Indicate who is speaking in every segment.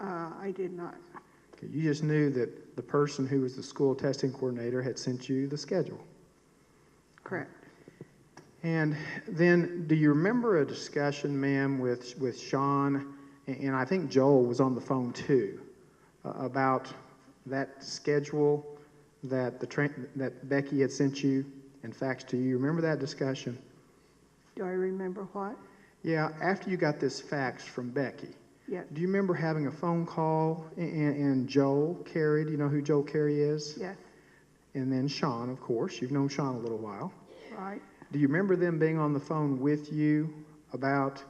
Speaker 1: uh, did not.
Speaker 2: Okay, You just knew that the person who was the school testing coordinator had sent you the schedule.
Speaker 1: Correct.
Speaker 2: And then, do you remember a discussion, ma'am, with, with Sean, and- and I think Joel was on the phone too, uh, about that schedule that the, tran- that Becky had sent you and faxed to you? Remember that discussion?
Speaker 1: Do I remember what?
Speaker 2: Yeah, after you got this fax from Becky,
Speaker 1: Yes,
Speaker 2: do you remember having a phone call a- and, and Joel Carey, do you know who Joel Carey is?
Speaker 1: yes,
Speaker 2: And then Sean, of course, you've known Sean a little while.
Speaker 1: right.
Speaker 2: Do you remember them being on the phone with you about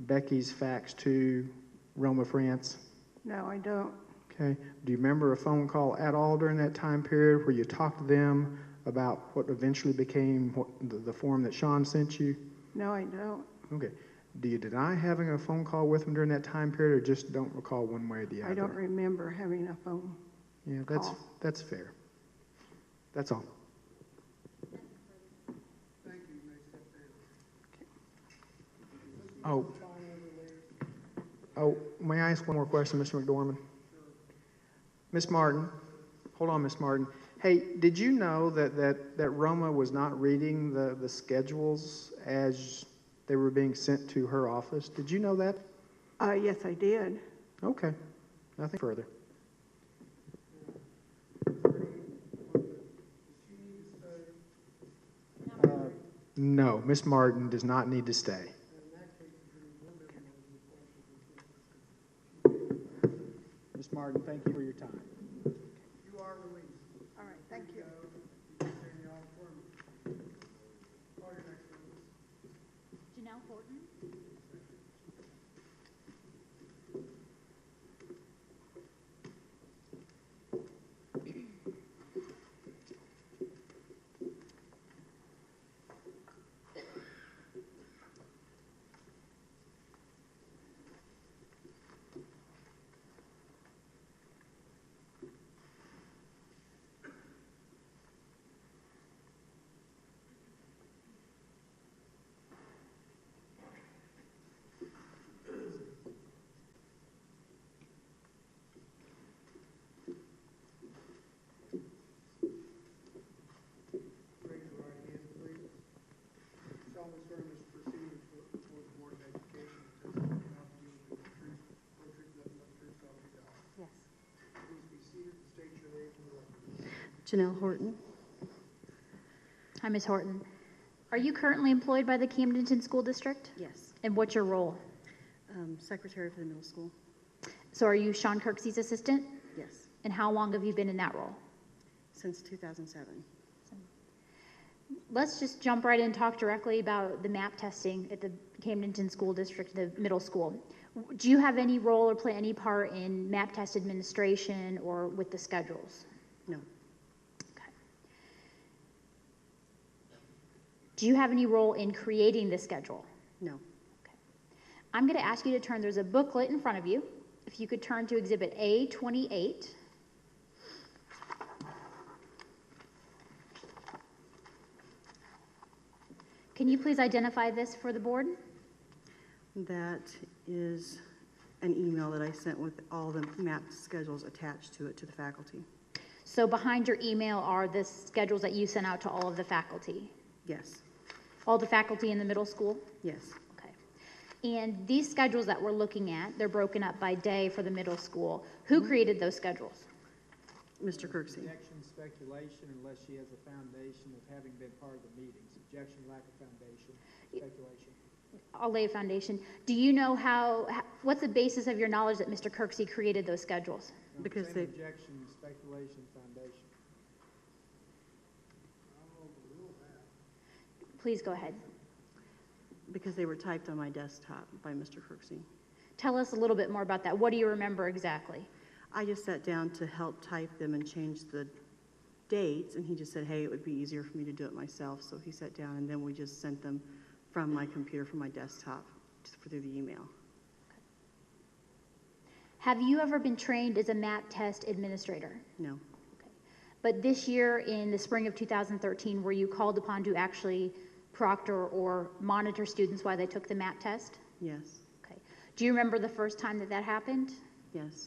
Speaker 2: Becky's fax to Roma France?
Speaker 1: No, I don't.
Speaker 2: Okay. Do you remember a phone call at all during that time period where you talked to them about what eventually became what, the, the form that Sean sent you?
Speaker 1: No, I don't.
Speaker 2: Okay. Do you deny having a phone call with them during that time period, or just don't recall one way or the other?
Speaker 1: I don't remember having a phone.
Speaker 2: Yeah, that's
Speaker 1: call.
Speaker 2: that's fair. That's all. Oh. Oh, may I ask one more question, Mr. McDormand? Miss Martin, hold on, Miss Martin. Hey, did you know that, that, that Roma was not reading the, the schedules as they were being sent to her office? Did you know that?
Speaker 1: Uh, yes, I did.
Speaker 2: Okay, nothing further. Uh, No, Miss Martin does not need to stay. Miss Martin, thank you for your time.
Speaker 1: All right, thank you.
Speaker 3: Janelle Horton.
Speaker 4: Raise your right hand, please. Solemnly swear in this proceeding before before the Board of Education, testimony you have to give is the truth, whole truth, nothing but the truth, so help you God.
Speaker 3: Yes.
Speaker 4: Please be seated and state your name for the record.
Speaker 5: Janelle Horton.
Speaker 3: Hi, Ms. Horton. Are you currently employed by the Camdenton School District?
Speaker 5: Yes.
Speaker 3: And what's your role?
Speaker 5: Um, Secretary for the middle school.
Speaker 3: So are you Sean Kirksey's assistant?
Speaker 5: Yes.
Speaker 3: And how long have you been in that role?
Speaker 5: Since 2007.
Speaker 3: Let's just jump right in and talk directly about the map testing at the Camdenton School District, the middle school. Do you have any role or play any part in map test administration or with the schedules?
Speaker 5: No.
Speaker 3: Okay. Do you have any role in creating the schedule?
Speaker 5: No.
Speaker 3: I'm going to ask you to turn, there's a booklet in front of you. If you could turn to Exhibit A28. Can you please identify this for the board?
Speaker 5: That is an email that I sent with all the map schedules attached to it to the faculty.
Speaker 3: So behind your email are the schedules that you sent out to all of the faculty,
Speaker 5: Yes.
Speaker 3: all the faculty in the middle school?
Speaker 5: Yes.
Speaker 3: Okay. And these schedules that we're looking at, they're broken up by day for the middle school. Who created those schedules?
Speaker 5: Mr. Kirksey.
Speaker 6: Objection, speculation, unless she has a foundation of having been part of the meetings. Objection, lack of foundation, speculation.
Speaker 3: I'll lay a foundation. Do you know how, h- what's the basis of your knowledge that Mr. Kirksey created those schedules?
Speaker 6: No,
Speaker 5: Because
Speaker 6: same
Speaker 5: they-
Speaker 6: Objection, speculation, foundation.
Speaker 3: Please go ahead.
Speaker 5: Because they were typed on my desktop by Mr. Kirksey.
Speaker 3: Tell us a little bit more about that. What do you remember exactly?
Speaker 5: I just sat down to help type them and change the dates, and he just said, hey, it would be easier for me to do it myself. So he sat down, and then we just sent them from my computer, from my desktop, just through the email.
Speaker 3: Have you ever been trained as a MAP test administrator?
Speaker 5: No.
Speaker 3: Okay. But this year, in the spring of 2013, were you called upon to actually proctor or monitor students while they took the MAP test?
Speaker 5: Yes.
Speaker 3: Okay. Do you remember the first time that that happened?
Speaker 5: Yes.